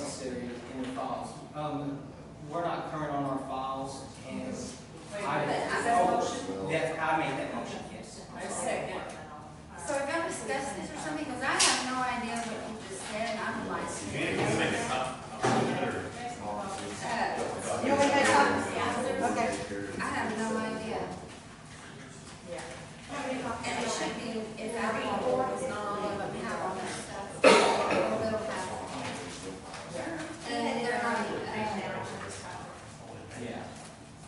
necessary in the files. Um, we're not current on our files, and I. Oh, That, I made that motion, yes. I'm sorry. second. So we're gonna discuss this or something, because I have no idea what you just said, and I'm like. Uh, You want me to talk? Okay. I have no idea. And it should be, if our report is not all of them have all that stuff, they will have. And they're not, uh, Yeah.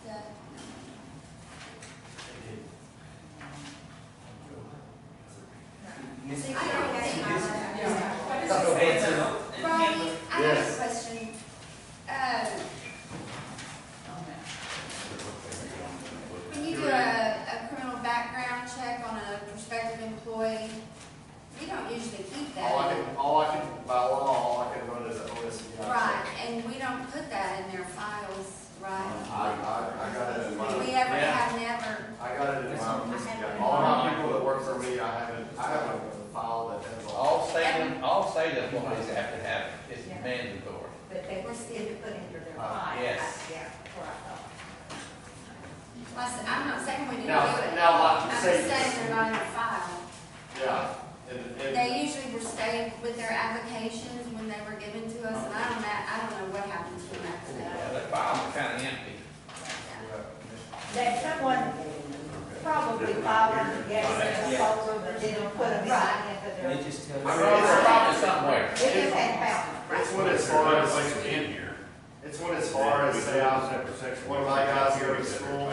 the- Ms. I don't think. Spencer, Ronnie, I have a Yes. question. Uh, oh, When you do uh, a, a criminal background check on a prospective employee, we don't usually keep All Oh, I that. can, all I can, by law, all I can run is an OSBI. check. Right, and we don't put that in their files, right? Um, I, I, I got it in my, We ever Yeah. have never, I got it in my, OSBI. all my people that work for me, I haven't, I haven't filed that has all. All state, all state employees have to have it, it's mandatory. But they were still put under their Uh, file. yes. Yeah, uh, before I thought. well, I said- I'm not saying we didn't do Now- it. now, like you I'm just say- saying they're not in the file. Yeah, and, and, They usually were stayed with their applications when they were given to us, and I don't, know- I don't know what happens to them after Yeah, that. the files are kind of empty. That someone probably filed them, yes, in the folder, but didn't put them right into they their. just tell I us. mean, It's probably somewhere. It just ain't found. it's what as far as, it's what as far as, say, I, one of my guys here at school,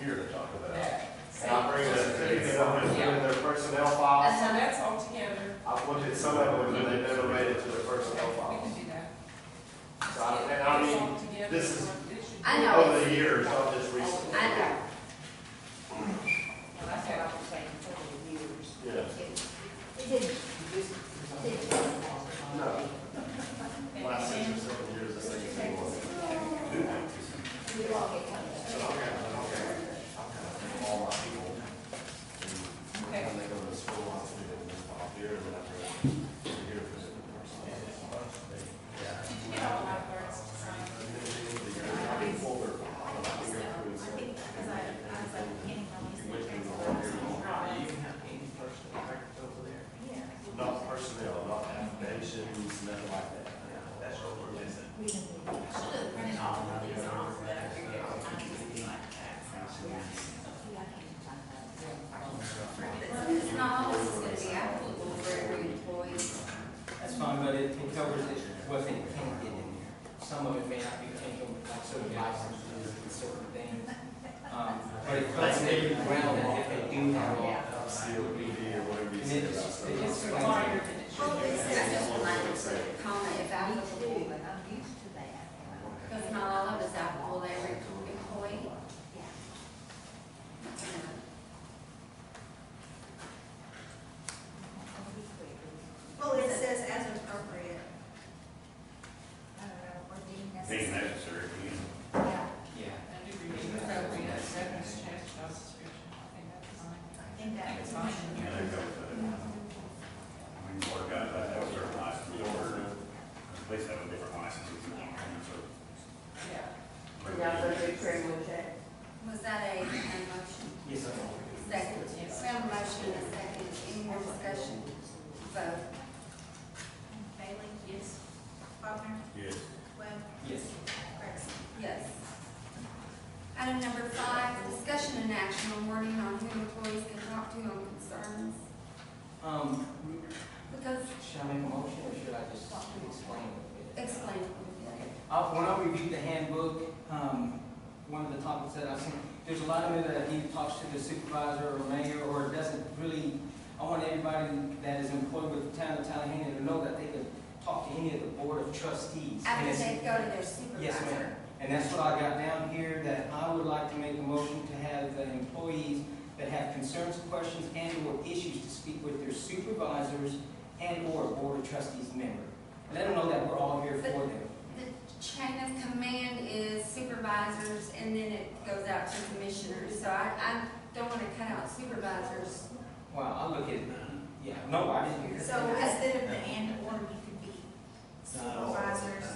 Here to talk about. and I bring the, certificate of it in their personnel files. So that's all together. I've looked at some of them, and they never made it to their personnel We files. can do that. So I, and I It's mean, all together. this is- I know, Over it's- the years, not just recently. I know. Well, that's what I was saying for years. Yeah. It didn't, it didn't. No. Last six or seven years, I think it's been one. We all get covered. So I've got, I've got, I've got all my people. and Okay. When they go to school, I'll see them this fall here and then after, here for the Did you get all my words to sign? You can have any personal records over there. Not personnel, not affidavits, nothing like that. That's what we're missing. It's not always gonna be applicable for every employee. That's fine, but it it covers it, what they can get in there. Some of it may not be taken, like certain licenses and certain things. Um, But it covers every realm that they do have. all. COPD or whatever you And said it about just, it stuff. just explains Required it. that it Well, should be. they said just a minor comma if applicable, because not all of us applicable to every employee. Well, it says as appropriate. I don't know, or deemed Being necessary. necessary, you Yeah, Yeah. I do review the appropriate acceptance check, job description. I think that's fine. I think I think that it's was fine. know, they go to, I mean, work out, that that was their license, we ordered, at least have a different license. Yeah. Yeah. Was that a, a motion? Yes, sir. Second. We have a motion and a second. Any more discussion? Vote. Bailey, Yes. Faulkner, Yes. Webb, Yes. Gregson. Yes. Item number five, discussion and action on wording on who employees can talk to on concerns. Um, Because, should I make a motion or should I just explain it? explain. Uh, when I reviewed the handbook, um, one of the topics that I've seen, there's a lot of it that he talks to the supervisor or mayor, or it doesn't really, I want everybody that is employed with the town of Tallahassee to know that they can talk to any of the board of trustees. And After it's- they go to their supervisor. Yes, ma'am. And that's what I got down here, that I would like to make a motion to have the employees that have concerns, questions, and/or issues to speak with their supervisors and/or board of trustees member. Let them know that we're all here for them. The chain of command is supervisors, and then it goes out to commissioners, so I, I don't wanna cut out supervisors. Wow, I look at, yeah, no, I didn't. So instead of the and or, you could be supervisors